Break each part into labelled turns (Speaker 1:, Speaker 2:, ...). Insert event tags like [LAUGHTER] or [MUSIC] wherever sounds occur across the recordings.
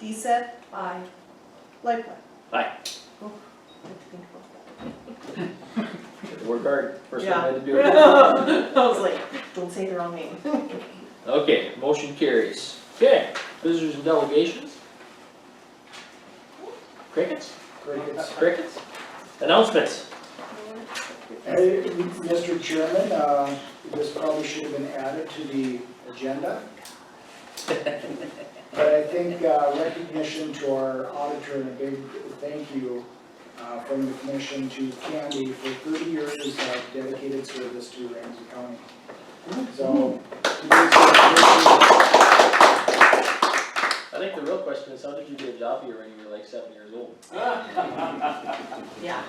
Speaker 1: DSED? Aye. Lightfoot?
Speaker 2: Aye.
Speaker 1: Oh, I have to think about that.
Speaker 2: Work hard, first one
Speaker 1: Yeah.
Speaker 2: had to do it.
Speaker 1: [LAUGHS] I was like, don't say the wrong name.
Speaker 2: Okay, motion carries. Okay, visitors and delegations? Crickets?
Speaker 3: Crickets.
Speaker 2: Crickets? Announcements?
Speaker 3: Hey, Mr. Chairman, uh, this probably should have been added to the agenda. But I think uh, recognition to our auditor and a big thank you uh, from the commission to Candy for 30 years of dedicated service to Ramsey County. So.
Speaker 2: I think the real question is, how did you get a job here when you were like seven years [LAUGHS] old?
Speaker 1: Yeah,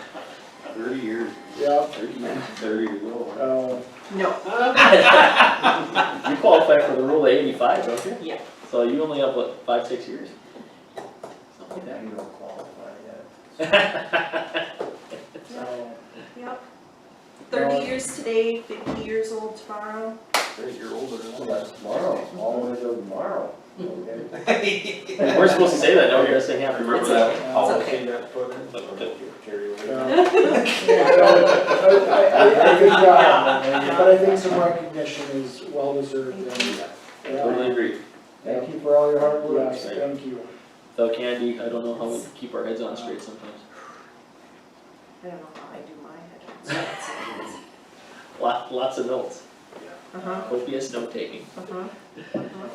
Speaker 4: Thirty years,
Speaker 3: Yeah,
Speaker 4: thirty years, thirty years old.
Speaker 3: uh,
Speaker 1: no,
Speaker 2: You qualify for the rule of eighty-five, don't you?
Speaker 1: yeah.
Speaker 2: So you only have, what, five, six years? Something like
Speaker 4: You don't qualify yet.
Speaker 2: that.
Speaker 3: so,
Speaker 1: Yep.
Speaker 3: Well-
Speaker 1: Thirty years today, fifty years old tomorrow.
Speaker 4: Thirty year older
Speaker 5: Well,
Speaker 4: than that.
Speaker 5: that's tomorrow, all the way till tomorrow, okay?
Speaker 1: [LAUGHS]
Speaker 4: [LAUGHS]
Speaker 2: We're supposed to say that, now we're gonna say happy
Speaker 4: Remember
Speaker 2: birthday.
Speaker 4: that
Speaker 1: okay.
Speaker 4: policy that put in? Carry
Speaker 3: uh,
Speaker 4: away.
Speaker 3: yeah,
Speaker 1: [LAUGHS]
Speaker 3: so, I- I- I think, uh,
Speaker 1: Yeah.
Speaker 3: But I think some recognition is well deserved and.
Speaker 1: Thank
Speaker 3: yeah.
Speaker 2: Totally agree.
Speaker 5: Thank you for all your hard work.
Speaker 3: Yes, thank you.
Speaker 2: Without candy, I don't know how we keep our heads on straight sometimes.
Speaker 1: I don't know how I do my head. [LAUGHS]
Speaker 2: Lot, lots of notes,
Speaker 1: Uh-huh,
Speaker 2: copious note taking.
Speaker 1: uh-huh, uh-huh.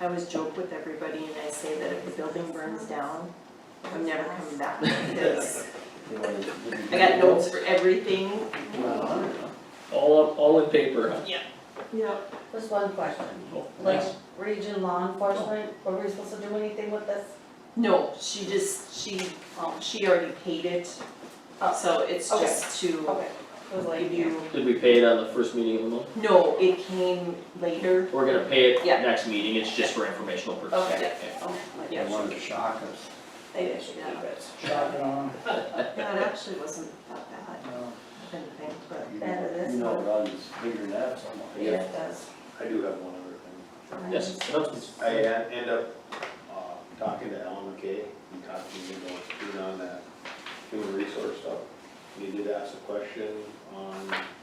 Speaker 1: I always joke with everybody and I say that if the building burns down, I'm never coming back because I got notes for everything.
Speaker 2: All, up- all in paper, huh?
Speaker 1: Yep.
Speaker 6: Just one question,
Speaker 2: Oh,
Speaker 6: like
Speaker 2: nice.
Speaker 6: region law enforcement, were we supposed to do anything with this?
Speaker 1: No, she just, she, um, she already paid it, uh, so it's
Speaker 6: Okay.
Speaker 1: just to
Speaker 6: Okay, it was like,
Speaker 1: give you,
Speaker 2: Did we pay it on the first meeting of the month?
Speaker 1: no, it came later.
Speaker 2: We're gonna pay it
Speaker 1: Yeah.
Speaker 2: next meeting, it's just for informational purposes.
Speaker 6: Okay.
Speaker 2: Okay.
Speaker 6: oh, my
Speaker 1: Yeah.
Speaker 6: gosh,
Speaker 4: They wanted to shock us.
Speaker 6: they didn't keep it.
Speaker 3: Shock and awe,
Speaker 1: No, it actually wasn't that bad,
Speaker 3: you know.
Speaker 1: I didn't think, but.
Speaker 4: You
Speaker 6: That
Speaker 4: know-
Speaker 6: is-
Speaker 4: You know, runs bigger than that somewhat.
Speaker 6: Yeah, it does.
Speaker 4: I do have one other thing.
Speaker 2: Yes, announcements.
Speaker 4: I en- end up, uh, talking to Alan McKay, he talked to me about being on that human resource stuff. He did ask a question on,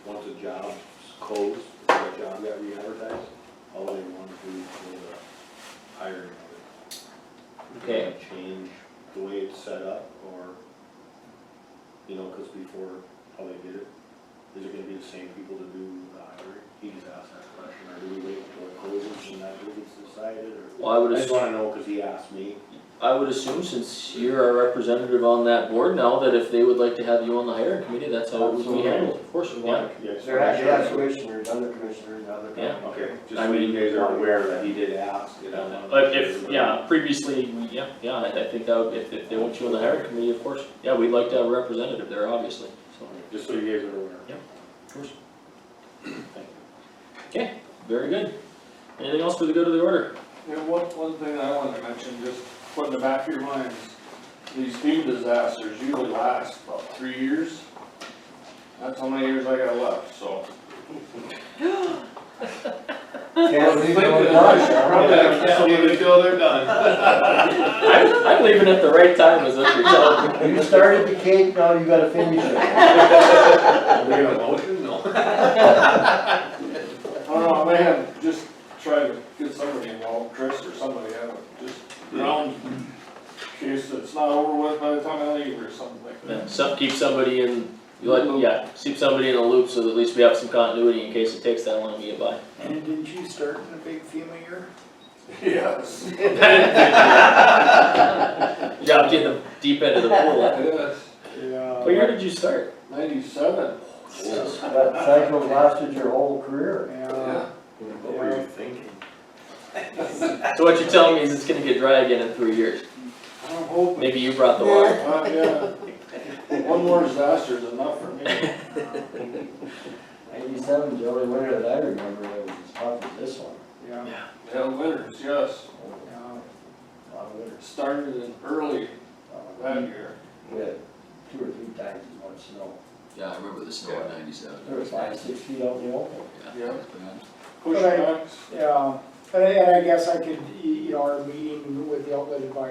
Speaker 4: once a job's closed, if that job got re-advertised, all they wanted to do was the hiring of it.
Speaker 2: Okay.
Speaker 4: Change the way it's set up, or, you know, cause before, how they did it, is it gonna be the same people to do the hiring? He just asked that question, or do we wait until it closes and that gets decided, or?
Speaker 2: Well, I would
Speaker 4: I just
Speaker 2: assume,
Speaker 4: wanna know, cause he asked me,
Speaker 2: I would assume since you're our representative on that board now, that if they would like to have you on the hiring committee, that's how it would be
Speaker 5: Absolutely.
Speaker 2: handled, of course, yeah.
Speaker 4: yeah, just
Speaker 5: There are actually
Speaker 4: wanna
Speaker 5: have
Speaker 4: make sure.
Speaker 5: commissioners, other commissioners, other.
Speaker 2: Yeah.
Speaker 4: Okay, just
Speaker 2: I
Speaker 4: so
Speaker 2: mean-
Speaker 4: you guys are aware that he did ask, you know.
Speaker 2: But if, yeah, previously, we- yeah, yeah, I, I think that would, if, if they want you on the hiring committee, of course, yeah, we'd like to have a representative there, obviously, so.
Speaker 4: Just so you guys are aware.
Speaker 2: Yep. Of course.
Speaker 4: Thank you.
Speaker 2: Very good. Anything else for the good of the [LAUGHS] order?
Speaker 7: Yeah, one, one thing I wanted to mention, just put in the back of your minds, these FEMA disasters usually last about three years. That's how many years I got left, so.
Speaker 5: Can't leave no
Speaker 7: I probably have to leave it till they're [LAUGHS] done.
Speaker 2: I'm, I'm leaving at the right time, is what you're telling me.
Speaker 5: doubt. You started the cake, now you gotta finish it.
Speaker 4: Are we gonna motion? No.
Speaker 7: [LAUGHS] I don't know, I may have, just try to get somebody involved, Chris or somebody, I don't, just around, in case it's not over with by the time I leave or something like that.
Speaker 2: Yeah, Some, keep somebody in, you let, yeah, keep somebody in a loop so that at least we have some continuity in case it takes that long to get by.
Speaker 3: And didn't you start in a big FEMA year?
Speaker 7: Yes.
Speaker 2: Dropped you in the deep end of the pool. huh?
Speaker 7: Yes.
Speaker 3: Yeah.
Speaker 2: What year did you start?
Speaker 7: Ninety-seven.
Speaker 5: That cycle lasted your whole career.
Speaker 3: Yeah.
Speaker 4: What were you thinking?
Speaker 2: So what you're telling me is it's gonna get dry again in three years.
Speaker 7: I'm hoping.
Speaker 2: Maybe you brought the water.
Speaker 7: Uh, yeah, one more disaster is enough for me.
Speaker 5: Eighty-seven, the only winter that I remember that was as hot as this one.
Speaker 3: Yeah,
Speaker 7: Hell, winters, yes,
Speaker 3: yeah.
Speaker 5: A lot of winter.
Speaker 7: started in early that year.
Speaker 5: We had two or three times as much snow.
Speaker 8: Yeah, I remember the snow in ninety-seven.
Speaker 5: There was five, six feet out in the open.
Speaker 7: Yeah.
Speaker 8: It's bad.
Speaker 7: Push
Speaker 3: Right.
Speaker 7: backs.
Speaker 3: Yeah, and I and I guess I could, y- you know, our meeting with the outlet advisor